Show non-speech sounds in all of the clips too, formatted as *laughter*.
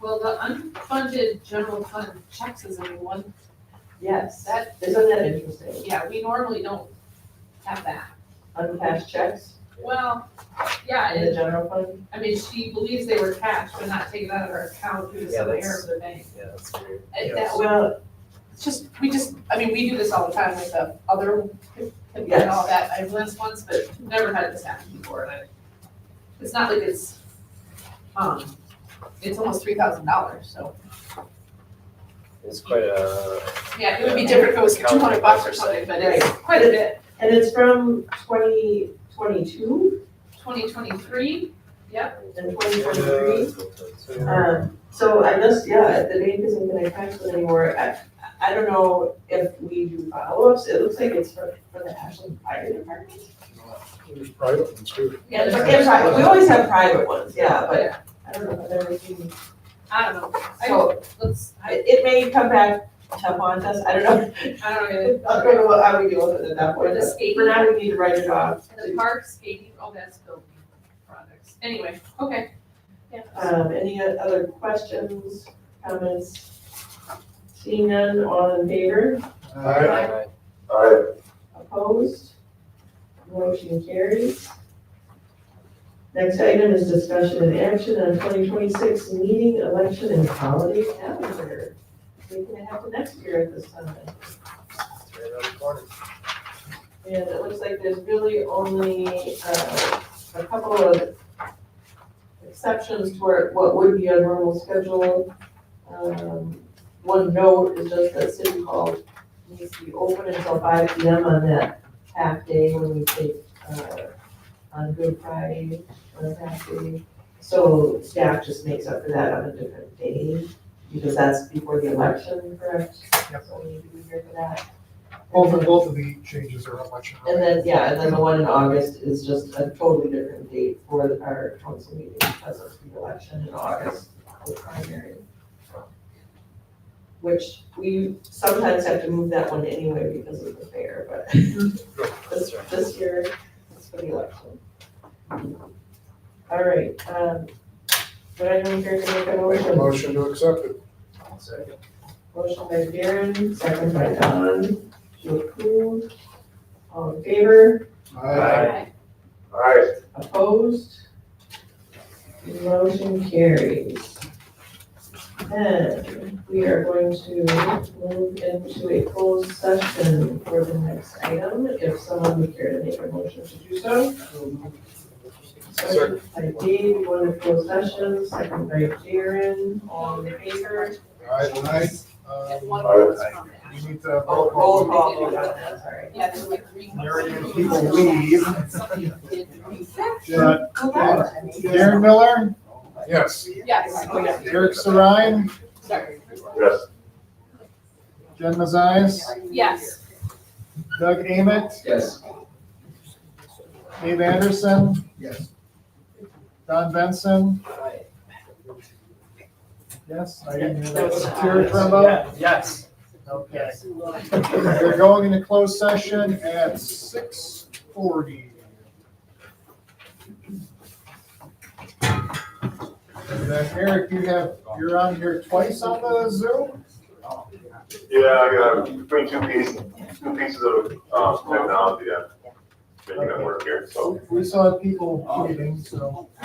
Well, the unfunded general fund checks is in one, Yes, that, isn't that interesting? yeah, we normally don't have that. Uncashed checks Well, yeah, in it, the general fund? I mean, she believes they were cash, but not taken out of her account due to Yeah, some error that's- of the bank. Yeah, that's weird. And Yes. that, Well, it's just, we just, I mean, we do this all the time with the other, and all Yes. that, I've list ones, but never had this happen before, and I, it's not like it's, um, it's almost three thousand dollars, so. It's quite a, Yeah, it would be different if it was two hundred bucks or something, but it's quite a bit. and it's from twenty twenty-two Twenty twenty-three, and twenty twenty-three. Yeah. Um, so I guess, yeah, the bank isn't gonna cash it anymore. I, I don't know if we do follow-ups. It looks like it's for, for the Ashland Fire Department. There's private ones too. yeah, But but they're there's, I private, we always have private ones, yeah, but I don't know if I've ever seen. don't know, I, So let's, I, it, it may come back to haunt us, I don't know. *laughs* I don't I really. don't know what, how we deal with it at that point, The but skating. for now, we need to write it off. And the park skating, oh, that's building products, anyway, okay. Yeah. Um, any other questions, comments? Seeing none, all in favor, Alright. Aye. opposed? Motion carries. Next item is discussion and action on twenty twenty-six meeting, election, and holiday calendar. What's gonna happen next year at this time? It's right around the corner. And it looks like there's really only, uh, a couple of exceptions to our- what would be a normal schedule. Um, one note is just that city hall needs to be open until five P M on that half day when we take, uh, on Good Friday, on a half day. So staff just makes up for that on a different day, because that's before the election, correct? Yep. So we need to be here for that. Both of, both of the changes are much And higher. then, yeah, and then the one in August is just a totally different date for the- our council meeting because of the election in August, the primary. Which we sometimes have to move that one anyway because of the fair, but *laughs* this, this year, it's for the election. All right, um, would anyone care to make a Make a motion? motion to accept it. Second. Motion by Darren, second by Don, to approve. All in favor? Aye. Aye. Opposed? Motion carries. And we are going to move into a closed session for the next item, if someone would care to make a motion to do so. Sir. By Dave, we want to close session, second by Jaren, all in favor? Aye, aye. Uh, Um, If one was from You that. need to. uh, Oh, roll call, yeah, sorry. Yeah, there's like three. Marion, people leave. Somebody did reset. Jen- Darren Miller? Yes. Yes, oh, yeah, Eric Sarine? sorry, Yes. Jen Mazias? yes. Doug Emmett? Yes. Dave Anderson? Yes. Don Benson? Yes? I didn't hear that. Terry Trumbo? Yes. Okay. We're going into closed session at six forty. And then Uh, Eric, you have, you're on here twice on the Zoom? Yeah, I got between two pieces, two pieces of, um, technology that making it work here, so. We saw people meeting, so, *laughs*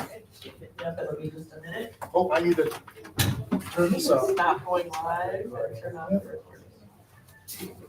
Yeah, that'll be just a minute. oh, I need to turn this off. Stop going live or turn off the recording.